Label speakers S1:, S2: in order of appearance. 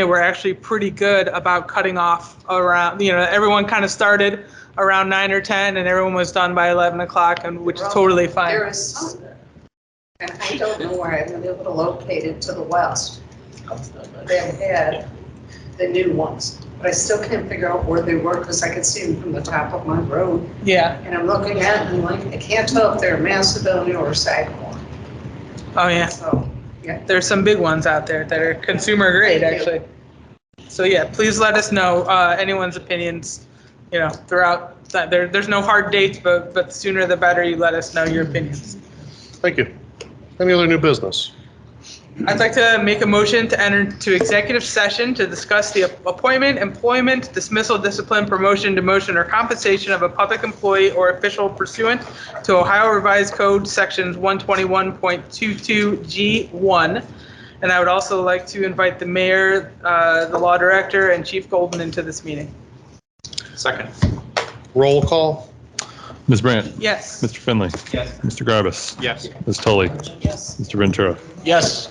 S1: they were actually pretty good about cutting off around, you know, everyone kind of started around nine or 10 and everyone was done by 11 o'clock and which is totally
S2: There
S1: fine.
S2: is, and I don't know where I'm able to locate it to the west. They've had the new ones, but I still can't figure out where they were because I could see them from the top of my road.
S1: Yeah.
S2: And I'm looking at it and like, I can't tell if they're Macedonia or Sagamore.
S1: Oh, yeah.
S2: So,
S1: There's some big ones out there that are consumer grade,
S2: Thank you.
S1: actually. So yeah, please let us know, uh, anyone's opinions, you know, throughout, that- there, there's no hard dates, but, but the sooner the better you let us know your opinions.
S3: Thank you. Any other new business?
S1: I'd like to make a motion to enter to executive session to discuss the appointment, employment, dismissal, discipline, promotion, demotion, or compensation of a public employee or official pursuant to Ohio Revised Code, Sections 121.22G1. And I would also like to invite the mayor, uh, the law director, and Chief Golden into this meeting.
S4: Second.
S3: Roll call?
S5: Ms. Brandt,
S1: Yes.
S5: Mr. Finley,
S4: Yes.
S5: Mr. Garbus,
S4: Yes.
S5: Ms. Tully,
S2: yes.
S5: Mr. Ventura.
S4: Yes.